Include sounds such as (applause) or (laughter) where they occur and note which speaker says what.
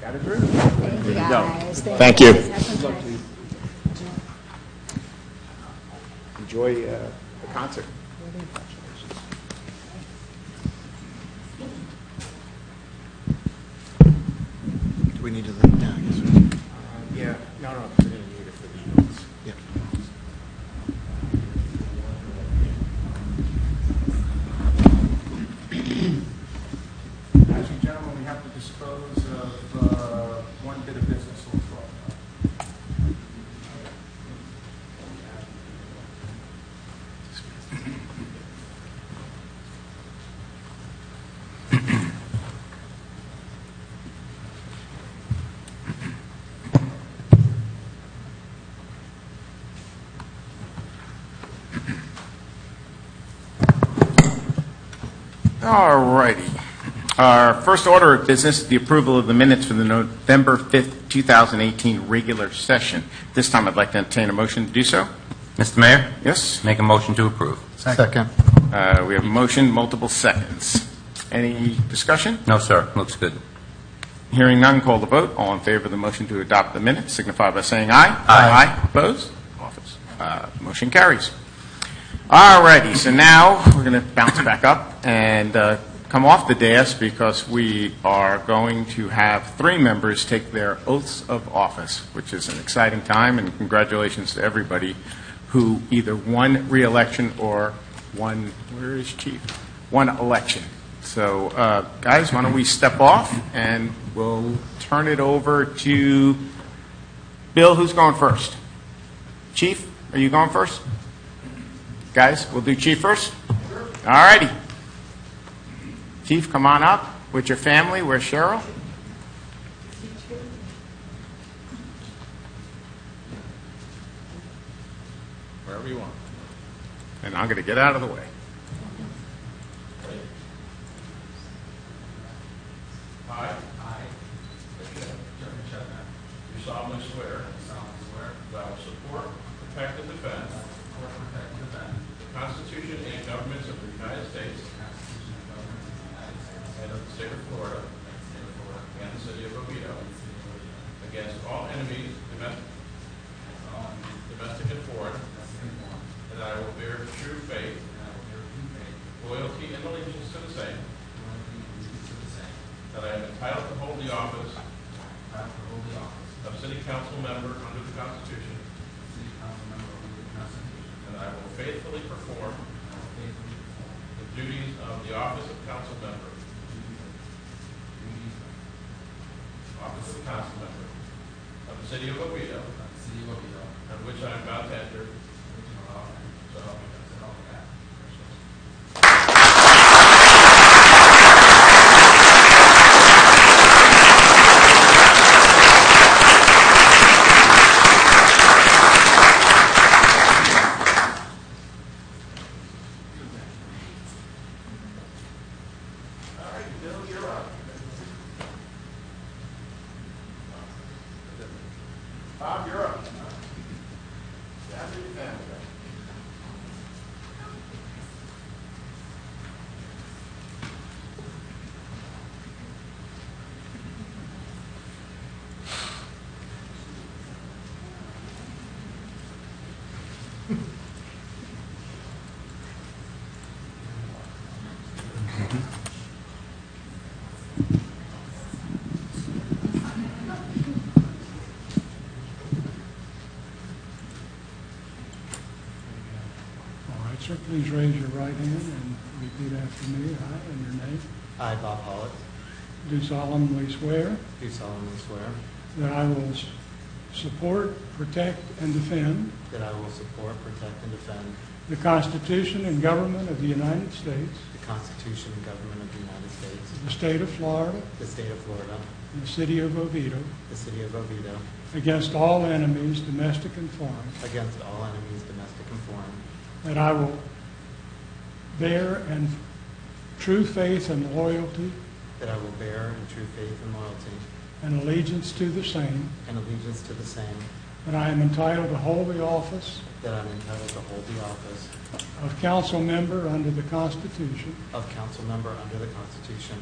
Speaker 1: Got it through?
Speaker 2: Thank you guys.
Speaker 3: Thank you.
Speaker 2: guys. Have some fun.
Speaker 1: Enjoy uh, the concert.
Speaker 4: Do we need to leave now? I guess we-
Speaker 1: Uh, Yeah, no, no, we're gonna need it for the notes.
Speaker 5: (clears throat)
Speaker 4: Yeah.
Speaker 5: Ladies and gentlemen, we have to dispose of uh, one bit of business so far.
Speaker 6: All righty. Our first order of business is the approval of the minutes for the November 5th, 2018 regular session. This time, I'd like to entertain a motion to do so.
Speaker 7: Mr. Mayor,
Speaker 6: Yes?
Speaker 7: make a motion to approve.
Speaker 4: Second.
Speaker 6: Uh, We have a motion, multiple seconds. Any discussion?
Speaker 7: No, sir, looks good.
Speaker 6: Hearing none, call the vote. All in favor of the motion to adopt the minutes signify by saying aye.
Speaker 7: Aye.
Speaker 6: Opposed? Office. Uh, Motion carries. All righty, so now we're going to bounce back up and uh, come off the dais because we are going to have three members take their oaths of office, which is an exciting time, and congratulations to everybody who either won reelection or won, where is Chief? One election. So, uh, guys, why don't we step off, and we'll turn it over to Bill, who's going first? Chief, are you going first? Guys, we'll do chief first? All righty. Chief, come on up with your family. Where's Cheryl? Wherever you want. And I'm going to get out of the way.
Speaker 8: I. I. Jeremy Chapman. Do solemnly swear. solemnly swear. That I will support, protect, and defend. Support, protect, and defend. The Constitution and governments of the United States. Constitution and governments of the United States. And of the state of Florida. And the state of Florida. And the city of Oviedo. Against all enemies, domestic. Domestic and foreign. That I will bear true faith. Loyalty and allegiance to the same. That I am entitled to hold the office. Of city council member under the Constitution. And that I will faithfully perform. The duties of the office of council member. Office of council member. Of the city of Oviedo. On which I am about to enter. So help me God.
Speaker 6: Bob, you're up.
Speaker 5: All right, sir, please raise your right hand and repeat after me. I, in your name,
Speaker 4: I, Bob Pollitt,
Speaker 5: do solemnly swear
Speaker 4: do solemnly swear
Speaker 5: that I will s- support, protect, and defend
Speaker 4: that I will support, protect, and defend
Speaker 5: the Constitution and government of the United States,
Speaker 4: the Constitution and government of the United States,
Speaker 5: the state of Florida,
Speaker 4: the state of Florida,
Speaker 5: and the city of Oviedo,
Speaker 4: the city of Oviedo,
Speaker 5: against all enemies, domestic and foreign,
Speaker 4: against all enemies, domestic and foreign,
Speaker 5: that I will bear and true faith and loyalty
Speaker 4: that I will bear in true faith and loyalty
Speaker 5: and allegiance to the same,
Speaker 4: and allegiance to the same,
Speaker 5: that I am entitled to hold the office
Speaker 4: that I am entitled to hold the office
Speaker 5: of council member under the Constitution
Speaker 4: of council member under the Constitution